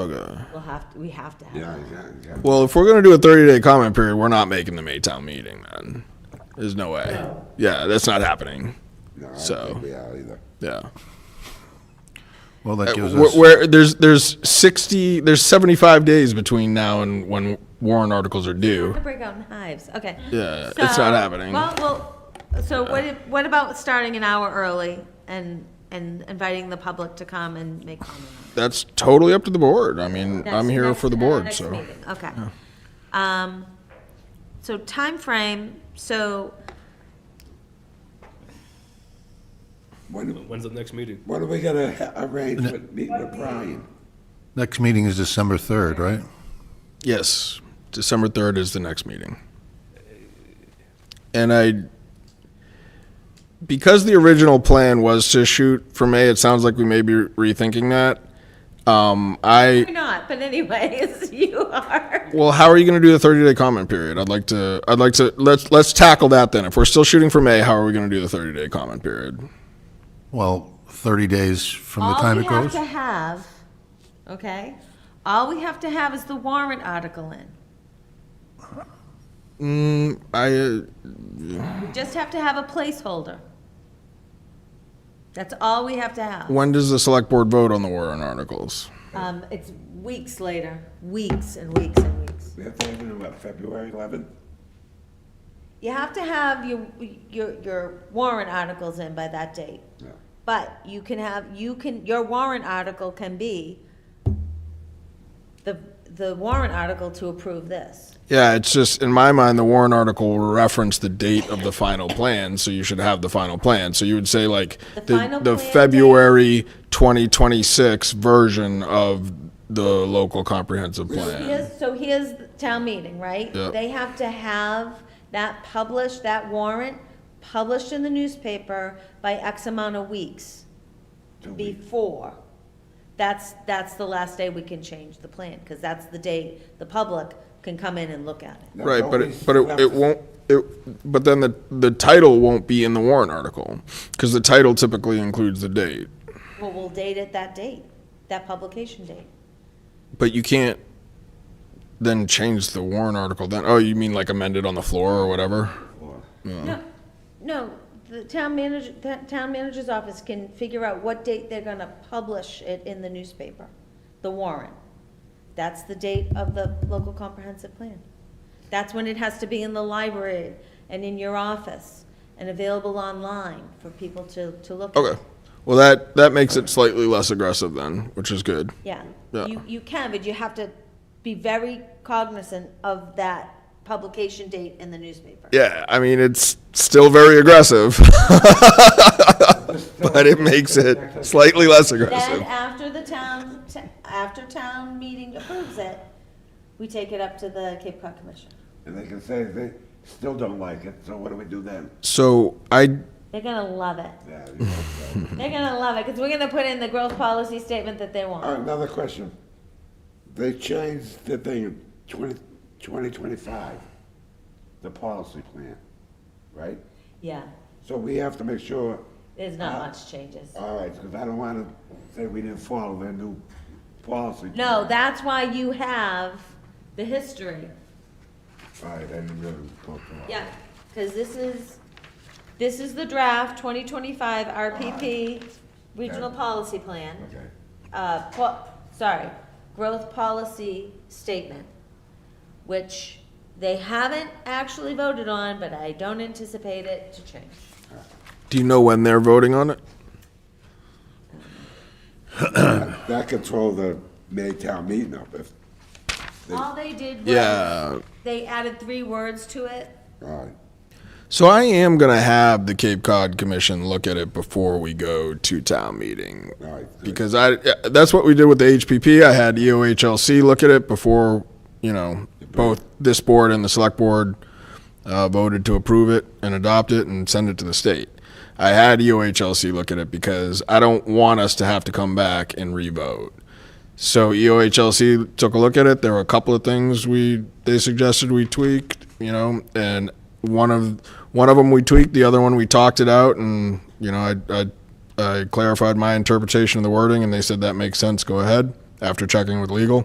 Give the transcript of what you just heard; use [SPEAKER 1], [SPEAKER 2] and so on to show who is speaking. [SPEAKER 1] Okay.
[SPEAKER 2] We'll have to, we have to have.
[SPEAKER 3] Yeah,
[SPEAKER 2] that.
[SPEAKER 3] yeah, yeah.
[SPEAKER 1] Well, if we're gonna do a 30 day comment period, we're not making the Maytown meeting. Then there's no way. Yeah, that's not happening.
[SPEAKER 3] No, I
[SPEAKER 1] So-
[SPEAKER 3] don't think we are either.
[SPEAKER 1] Yeah.
[SPEAKER 4] Well, that gives
[SPEAKER 1] Where,
[SPEAKER 4] us,
[SPEAKER 1] where there's there's 60 there's 75 days between now and when warrant articles are
[SPEAKER 2] Have
[SPEAKER 1] due.
[SPEAKER 2] to break out in hives, okay.
[SPEAKER 1] Yeah, it's
[SPEAKER 2] So-
[SPEAKER 1] not happening.
[SPEAKER 2] Well, well, so what, if- what about starting an hour early and, and inviting the public to come and make comments?
[SPEAKER 1] That's totally up to the board. I mean, I'm
[SPEAKER 2] Next-
[SPEAKER 1] here
[SPEAKER 2] next-
[SPEAKER 1] for the
[SPEAKER 2] uh,
[SPEAKER 1] board,
[SPEAKER 2] next
[SPEAKER 1] so.
[SPEAKER 2] meeting, Okay. Um, so timeframe, so
[SPEAKER 3] When,
[SPEAKER 5] When's the next meeting?
[SPEAKER 3] when are we gonna ha- arrange with, meet with Brian?
[SPEAKER 4] next meeting is December 3rd, right?
[SPEAKER 1] Yes, December 3rd is the next meeting. And I, because the original plan was to shoot for May, it sounds like we may be rethinking that. Um, I,
[SPEAKER 2] You're not, but anyways, you are.
[SPEAKER 1] well, how are you going to do the 30 day comment period? I'd like to, I'd like to, let's, let's tackle that then. If we're still shooting for May, how are we going to do the 30 day comment period?
[SPEAKER 4] Well, 30 days from the
[SPEAKER 2] All
[SPEAKER 4] time
[SPEAKER 2] we
[SPEAKER 4] it
[SPEAKER 2] have
[SPEAKER 4] goes.
[SPEAKER 2] to have, okay, all we have to have is the warrant article in.
[SPEAKER 1] I, uh,
[SPEAKER 2] We just have to have a placeholder. That's all we have to have.
[SPEAKER 1] when does the select board vote on the warrant articles?
[SPEAKER 2] Um, it's weeks later, weeks and weeks and weeks.
[SPEAKER 3] We have to have it in, what, February eleventh?
[SPEAKER 2] You have to have your, your, your warrant articles in by that date.
[SPEAKER 3] Yeah.
[SPEAKER 2] But you can have, you can, your warrant article can be the, the warrant article to approve this.
[SPEAKER 1] Yeah, it's just, in my mind, the Warren article will reference the date of the final plan, so you should have the final plan. So you would say like
[SPEAKER 2] The
[SPEAKER 1] the,
[SPEAKER 2] final
[SPEAKER 1] the
[SPEAKER 2] plan
[SPEAKER 1] February 2026 version of the local comprehensive plan.
[SPEAKER 2] Here's, so here's the town meeting, right?
[SPEAKER 1] Yep.
[SPEAKER 2] They have to have that published, that warrant published in the newspaper by X amount of weeks before. That's, that's the last day we can change the plan, because that's the day the public can come in and look at it.
[SPEAKER 1] Right, but it, but it, it won't, it, but then the, the title won't be in the Warren article, because the title typically includes the date.
[SPEAKER 2] Well, we'll date it that date, that publication date.
[SPEAKER 1] But you can't then change the Warren article then, oh, you mean like amend it on the floor or whatever?
[SPEAKER 2] No, no, the town manager, the town manager's office can figure out what date they're gonna publish it in the newspaper, the warrant. That's the date of the local comprehensive plan. That's when it has to be in the library and in your office and available online for people to, to look at.
[SPEAKER 1] Okay. Well, that, that makes it slightly less aggressive then, which is good.
[SPEAKER 2] Yeah,
[SPEAKER 1] Yeah.
[SPEAKER 2] you, you can, but you have to be very cognizant of that publication date in the newspaper.
[SPEAKER 1] Yeah, I mean, it's still very aggressive, but it makes it slightly less
[SPEAKER 2] Then
[SPEAKER 1] aggressive.
[SPEAKER 2] after the town, t- after town meeting approves it, we take it up to the Cape Cod Commission.
[SPEAKER 3] And they can say they still don't like it, so what do we do then?
[SPEAKER 1] So I,
[SPEAKER 2] They're gonna love it.
[SPEAKER 3] Yeah, you know, so.
[SPEAKER 2] They're gonna love it, because we're gonna put in the growth policy statement that they
[SPEAKER 3] All right,
[SPEAKER 2] want.
[SPEAKER 3] another question. They changed the thing, twenty, twenty twenty-five, the policy plan, right?
[SPEAKER 2] Yeah, Uh,
[SPEAKER 3] So we have to make sure,
[SPEAKER 2] there's not much changes.
[SPEAKER 3] all right, because I don't want to say we didn't follow their new policy.
[SPEAKER 2] No,
[SPEAKER 3] plan.
[SPEAKER 2] that's why you have the history.
[SPEAKER 3] All right, I didn't really look for it.
[SPEAKER 2] Yeah, because this is, this is the draft 2025 RPP Regional
[SPEAKER 3] Okay.
[SPEAKER 2] Policy Plan.
[SPEAKER 3] Okay,
[SPEAKER 2] uh, po- sorry, growth policy statement, which they haven't actually voted on, but I don't anticipate it to change.
[SPEAKER 1] do you know when they're voting on it?
[SPEAKER 3] that control the May town meeting up if,
[SPEAKER 2] All they did was,
[SPEAKER 1] Yeah.
[SPEAKER 2] they added three words to it.
[SPEAKER 3] all right.
[SPEAKER 1] So I am going to have the Cape Cod Commission look at it before we go to town meeting.
[SPEAKER 3] All right, good.
[SPEAKER 1] Because I, that's what we did with the HPP. I had E EOHLC look at it before, you know, both this board and the select board uh, voted to approve it and adopt it and send it to the state. I had E EOHLC look at it because I don't want us to have to come back and re-vote. So E EOHLC took a look at it. There were a couple of things we they suggested we tweaked, you know, and one of one of them we tweaked, the other one we talked it out, and you know, I I, I clarified my interpretation of the wording, and they said that makes sense. Go ahead, after checking with legal.